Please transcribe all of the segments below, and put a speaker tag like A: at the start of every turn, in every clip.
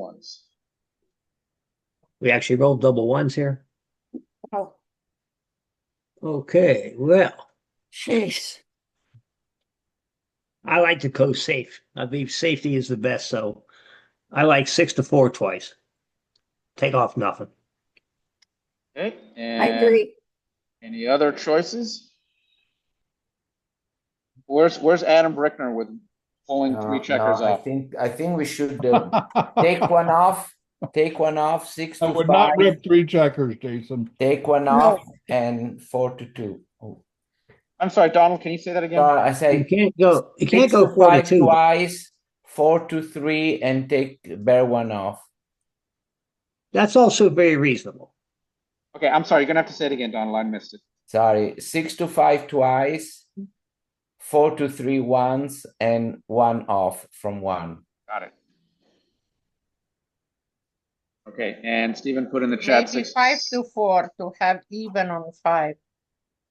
A: ones.
B: We actually rolled double ones here.
A: Oh,
B: Okay, well,
A: jeez.
B: I like to go safe. I believe safety is the best, so I like six to four twice. Take off nothing.
A: Okay,
C: I
A: and
C: agree.
A: any other choices? Where's, where's Adam Brickner with pulling
D: No,
A: three
D: Uh, no,
A: checkers
D: I
A: off?
D: think, I think we should uh, take one off, take one off, six
E: I
D: to
E: would
D: five,
E: not rip three checkers, Jason.
D: take one
C: No.
D: off and four to two. Oh,
A: I'm sorry, Donald, can you say that again?
D: Sorry, I
B: You
D: say
B: can't go, you can't
D: six
B: go
D: to
B: four to
D: five
B: two.
D: twice, four to three and take bear one off.
B: That's also very reasonable.
A: Okay, I'm sorry, you're gonna have to say it again, Donald, I missed it.
D: Sorry, six to five twice, four to three once and one off from one.
A: Got it. Okay, and Stephen put in the chat
F: Maybe
A: six,
F: five to four to have even on five.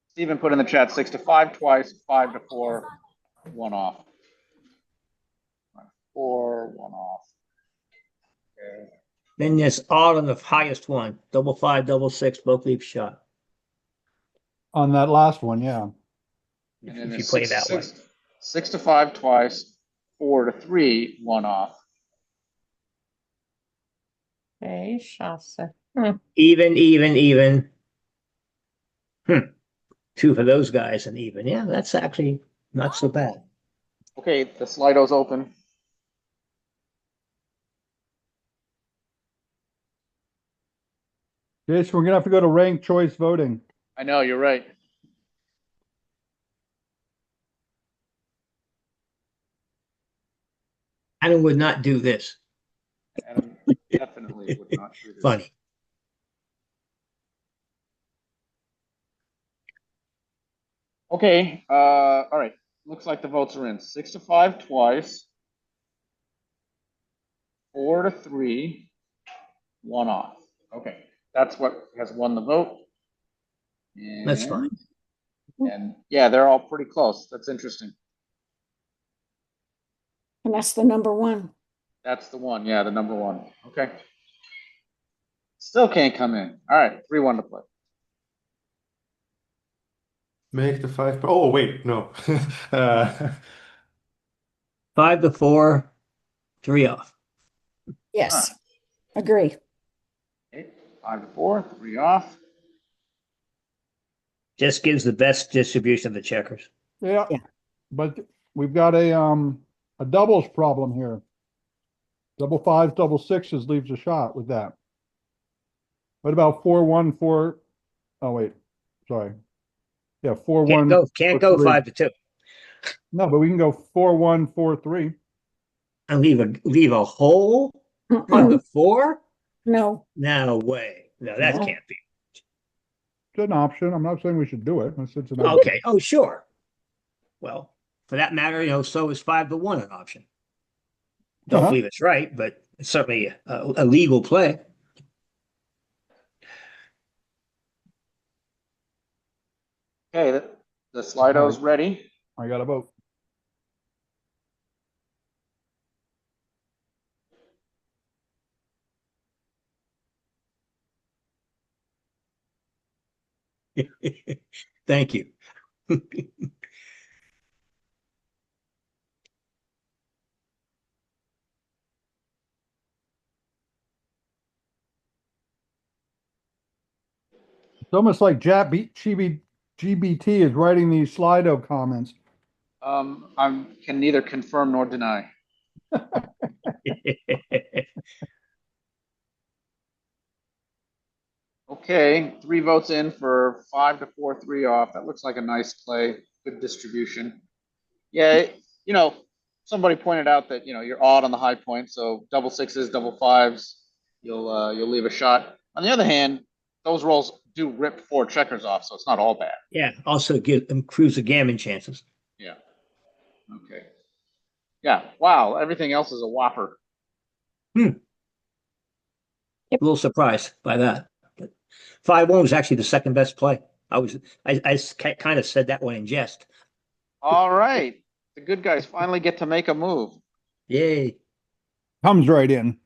A: Stephen put in the chat six to five twice, five to four, one off. Four, one off. Okay.
B: Then it's all on the highest one, double five, double six, both leave shot.
E: On that last one, yeah.
A: And then
B: If you
A: there's
B: play
A: six-
B: that way.
A: six- Six to five twice, four to three, one off.
F: Okay, chasse.
B: Even, even, even. Hmm. Two for those guys and even. Yeah, that's actually not so bad.
A: Okay, the Slido's open.
E: Jason, we're gonna have to go to ranked choice voting.
A: I know, you're right.
B: Adam would not do this.
A: Adam definitely would not do this.
B: Funny.
A: Okay, uh, all right. Looks like the votes are in. Six to five twice. Four to three, one off. Okay, that's what has won the vote.
B: That's
A: And-
B: fine.
A: And yeah, they're all pretty close. That's interesting.
C: And that's the number one.
A: That's the one. Yeah, the number one. Okay. Still can't come in. All right, three one to play.
G: Make the five. Oh wait, no. uh,
B: Five to four, three off.
C: Yes. Agree.
A: Okay, Five to four, three off.
B: Just gives the best distribution of the checkers.
E: Yeah.
C: Yeah.
E: But we've got a, um, a doubles problem here. Double fives, double sixes leaves a shot with that. What about four, one, four? Oh, wait, sorry. Yeah, four,
B: Can't
E: one,
B: go, can't
E: or
B: go
E: three.
B: five to two
E: no, but we can go four, one, four, three.
B: and leave a, leave a hole on
C: Mm-mm.
B: the four?
C: No,
B: No way. No, that
E: No.
B: can't be.
E: It's an option. I'm not saying we should do it. It's it's an option.
B: Okay. Oh, sure. Well, for that matter, you know, so is five to one an option. Don't
E: Uh-huh.
B: believe it's right, but it's certainly a, a legal play.
A: Okay, the, the Slido's ready.
E: I got a vote.
B: Thank you.
E: It's almost like Jab, GB, GBT is writing these Slido comments.
A: Um, I can neither confirm nor deny. Okay, three votes in for five to four, three off. That looks like a nice play, good distribution. Yeah, it- you know, somebody pointed out that, you know, you're odd on the high point, so double sixes, double fives, you'll uh, you'll leave a shot. On the other hand, those rolls do rip four checkers off, so it's not all bad.
B: Yeah, also give them cruise the gammon chances.
A: Yeah. Okay. Yeah, wow, everything else is a whopper.
B: A little surprised by that. But five one was actually the second best play. I was I, I kind of said that one in jest.
A: All right, the good guys finally get to make a move.
B: Yay.
E: Comes right in.